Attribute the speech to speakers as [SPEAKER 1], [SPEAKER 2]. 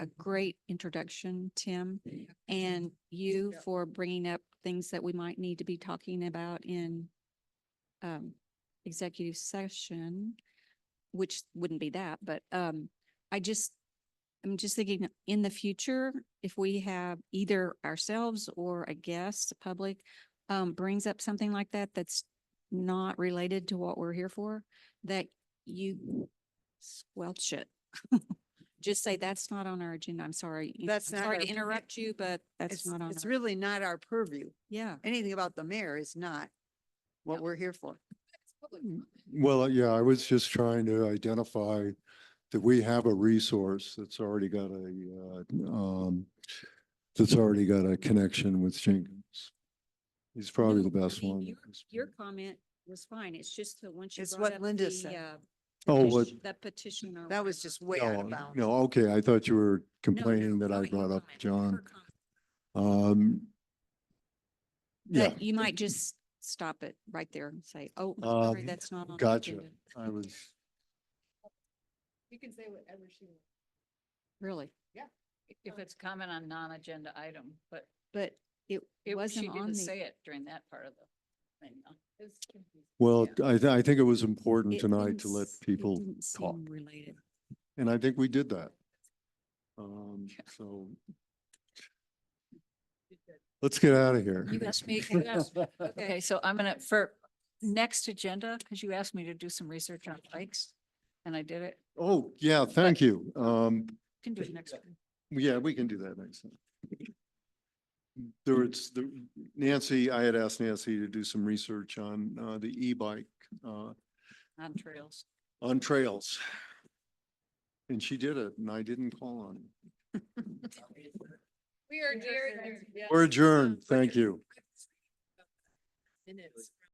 [SPEAKER 1] a great introduction, Tim, and you
[SPEAKER 2] Yep.
[SPEAKER 1] for bringing up things that we might need to be talking about in um, executive session, which wouldn't be that, but um, I just, I'm just thinking in the future, if we have either ourselves or a guest, public, um, brings up something like that, that's not related to what we're here for, that you squelch it. Just say, that's not on our agenda. I'm sorry. you know,
[SPEAKER 2] That's
[SPEAKER 1] I'm
[SPEAKER 2] not
[SPEAKER 1] Sorry
[SPEAKER 2] our
[SPEAKER 1] to
[SPEAKER 2] purview."
[SPEAKER 1] interrupt you, but that's
[SPEAKER 2] It's,
[SPEAKER 1] not on.
[SPEAKER 2] it's
[SPEAKER 1] our-
[SPEAKER 2] really not our purview.
[SPEAKER 1] Yeah.
[SPEAKER 2] Anything about the mayor is not what we're here for. Mm.
[SPEAKER 3] Well, uh, yeah, I was just trying to identify that we have a resource that's already got a, uh, um, that's already got a connection with Jenkins. He's probably
[SPEAKER 1] No,
[SPEAKER 3] the
[SPEAKER 1] I
[SPEAKER 3] best
[SPEAKER 1] mean,
[SPEAKER 3] one.
[SPEAKER 1] your- Your comment was fine. It's just that once you
[SPEAKER 2] It's
[SPEAKER 1] brought
[SPEAKER 2] what
[SPEAKER 1] up
[SPEAKER 2] Linda
[SPEAKER 1] the,
[SPEAKER 2] said.
[SPEAKER 1] uh,
[SPEAKER 3] Oh, what?
[SPEAKER 1] petition- The petition or
[SPEAKER 2] That was
[SPEAKER 1] whatever.
[SPEAKER 2] just way out
[SPEAKER 3] No,
[SPEAKER 2] of bounds.
[SPEAKER 3] no, okay, I thought you were
[SPEAKER 1] No,
[SPEAKER 3] complaining
[SPEAKER 1] no,
[SPEAKER 3] that I
[SPEAKER 1] not your
[SPEAKER 3] brought up
[SPEAKER 1] comment, her
[SPEAKER 3] John.
[SPEAKER 1] comment.
[SPEAKER 3] Um, yeah,
[SPEAKER 1] But you might just stop it right there and say, oh, I'm sorry,
[SPEAKER 3] Um,
[SPEAKER 1] that's not on. the
[SPEAKER 3] gotcha.
[SPEAKER 1] agenda."
[SPEAKER 3] I was,
[SPEAKER 4] You can say whatever she wants.
[SPEAKER 1] Really,
[SPEAKER 4] If it's comment on non-agenda item, but
[SPEAKER 1] but it,
[SPEAKER 4] it
[SPEAKER 1] it
[SPEAKER 4] wasn't
[SPEAKER 1] wasn't
[SPEAKER 4] she
[SPEAKER 1] on
[SPEAKER 4] didn't
[SPEAKER 1] the.
[SPEAKER 4] say it during that part of the thing. though.
[SPEAKER 3] well,
[SPEAKER 4] Yeah.
[SPEAKER 3] I, thi- I think it was important
[SPEAKER 1] it
[SPEAKER 3] tonight
[SPEAKER 1] didn't
[SPEAKER 3] to let
[SPEAKER 1] s- it
[SPEAKER 3] people
[SPEAKER 1] didn't seem
[SPEAKER 3] talk.
[SPEAKER 1] Related.
[SPEAKER 3] And I think we did that. Um, so let's get out of here.
[SPEAKER 4] You asked me, you asked, okay, so I'm gonna, for next agenda, because you asked me to do some research on bikes, and I did it.
[SPEAKER 3] Oh, yeah, thank you. Um,
[SPEAKER 4] Can do it next week.
[SPEAKER 3] yeah, we can do that next time. There was, the- Nancy, I had asked Nancy to do some research on, uh, the e-bike, uh,
[SPEAKER 4] on trails.
[SPEAKER 3] on trails. And she did it and I didn't call on her.
[SPEAKER 4] We are adjourned.
[SPEAKER 3] We're adjourned. Thank
[SPEAKER 4] Richard.
[SPEAKER 3] you.
[SPEAKER 4] Minutes.